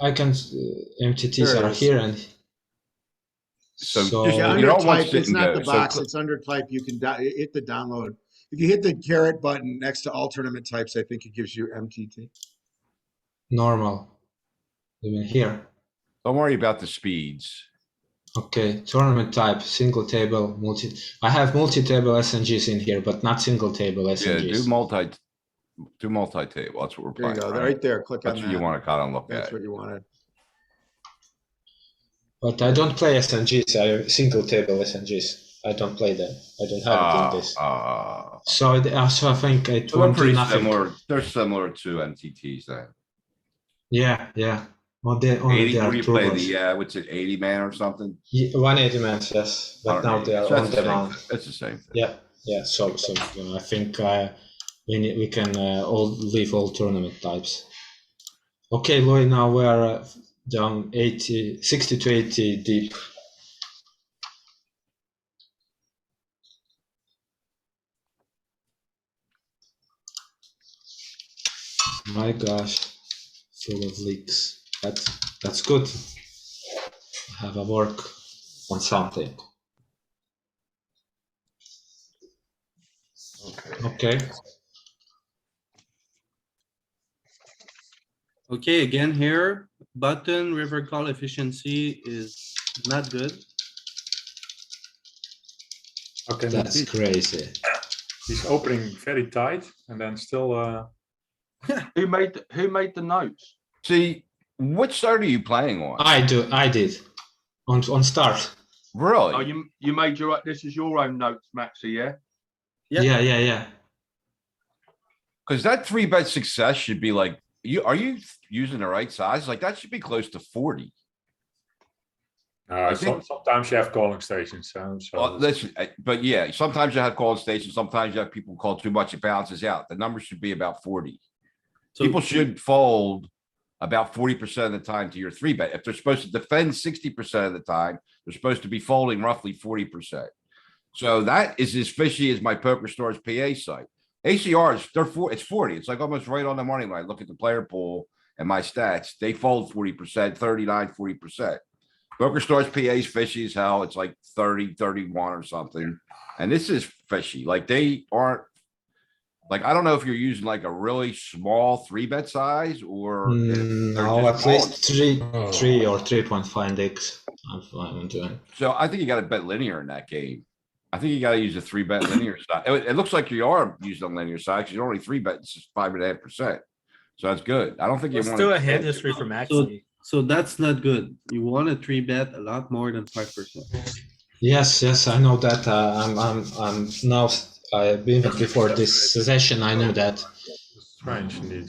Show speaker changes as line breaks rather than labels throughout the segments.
icons, uh, MTTs
There it
are
is.
here and. So,
So- Yeah,
If you
I
yeah,
know. Oh,
under
you're all one
type, it's
sitting
not the
there, so
box,
click-
it's under type, you can di- hit the download. If you hit the carrot button next to all tournament types, I think it gives you MTT.
normal. Even here,
Don't worry about the speeds.
okay, tournament type, single table, multi, I have multi-table SNGs in here, but not single table
Yeah, do
SNGs.
multi, do multi-table. That's what we're
There you
playing.
go,
right?
right there, click on
That's what you
that.
wanna kinda look
That's
at.
what you wanted.
But I don't play SNGs, I have single table SNGs, I don't play them, I don't have it in
Uh,
this.
uh,
So it, uh, so I think it
so they're
won't do
pretty
nothing.
similar, they're similar to MTTs then.
Yeah, yeah, well, Oh, they, only
Eighty,
they
what
are
do you
true
play,
ones.
the, uh, what's it, eighty man or something?
Ye- 180 mans, yes, but now they are
So
on
that's the same
demand.
thing. That's the same thing.
Yeah, yeah. So, so you know, I think uh, we need, we can uh, all leave all tournament types. Okay, Louis. Now we are uh, down 80, 60 to 80 deep. My gosh, full of leaks. That's that's good. Have a work on something. Okay.
Okay, again here, button river call efficiency is not good.
Okay,
That's
he's,
crazy.
he's opening very tight and then still, uh,
Who made, th- who made the notes?
See, which side are you playing on?
I do. I did. On on start.
Oh,
Really?
you, you made your, this is your own notes, Maxi, yeah?
Yeah.
Yeah, yeah, yeah.
Cause that three bet success should be like, you, are you using the right size? Like, that should be close to forty.
uh,
I
so-
think-
sometimes you have calling stations, so. so
Well, listen, uh, but yeah, sometimes you have call stations, sometimes you have people call too much, it balances out. The number should be about forty.
So
People should fold about forty percent of the time to your three bet. If they're supposed to defend sixty percent of the time, they're supposed to be folding roughly forty percent. So that is as fishy as my poker stars PA site. ACRs, they're four, it's forty. It's like almost right on the money line. Look at the player pool and my stats. They fold forty percent, 39 40 percent. Poker stars PA is fishy as hell. It's like 30, 31 or something. And this is fishy. Like they aren't like, I don't know if you're using like a really small three bet size or. if
Mm,
they're
No,
just
at
calling.
least three, three or three point five x. I'm fine. I'm doing.
So I think you gotta bet linear in that game. I think you gotta use a three bet linear side. It, it looks like you are using a linear side, 'cause you're only three betting s- five and a half percent. So that's good. I don't think you
Let's
want.
do a hand history for Maxi.
So that's not good. You want a three bet a lot more than five percent.
Yes, yes. I know that. Uh, I'm, I'm, I'm now. I even before this session, I knew that.
Strange indeed.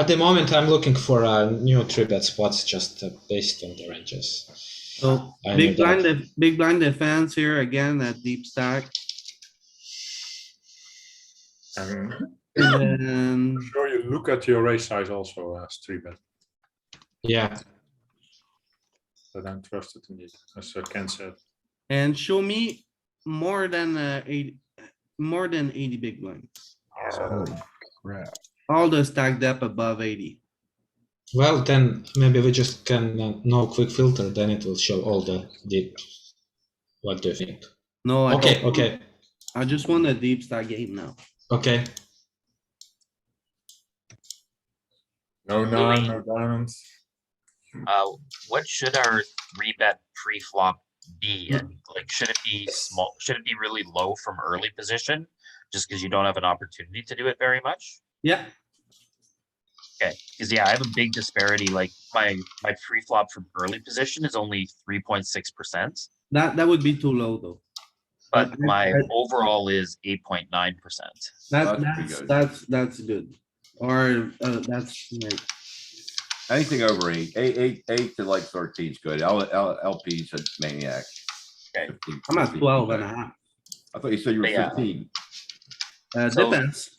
At the moment, I'm looking for a new three bet spots just uh, based on the ranges.
So
I knew
big
that.
blind, def- big blind defense here again at deep stack.
And
And then
I'm sure you look at your raise size also as three bet,
Yeah.
but I'm trusted indeed, as uh, Ken said.
and show me more than uh, eight, more than eighty big blind. All the stack depth above eighty.
Well, then maybe we just can uh, no quick filter. Then it will show all the deep. What do you think?
No, I
Okay.
don't-
Okay.
I just want a deep stack game now.
Okay.
No nine, no diamonds.
Uh, what should our three bet pre-flop be? And like, should it be small, should it be really low from early position? Just because you don't have an opportunity to do it very much?
Yeah,
Because yeah, I have a big disparity, like my, my pre-flop from early position is only three point six percent.
that, that would be too low though.
But
I-
my
I-
overall is eight point nine percent.
That,
That's pretty
that's,
good.
that's, that's good. Or, uh, that's like,
Anything over eight, eight, eight, eight to like thirteen is good. L, L, LP's a maniac.
Okay.
15,
I'm at
15,
twelve and a
okay.
half.
I thought you said you were
Yeah.
fifteen.
Uh,
So-
depends.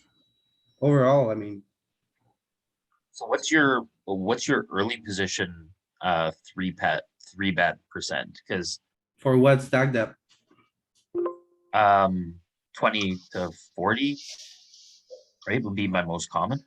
Overall, I mean,
So what's your, what's your early position, uh, three pet, three bet percent? Because,
for what stack depth,
um, twenty to forty. Right, would be my most common.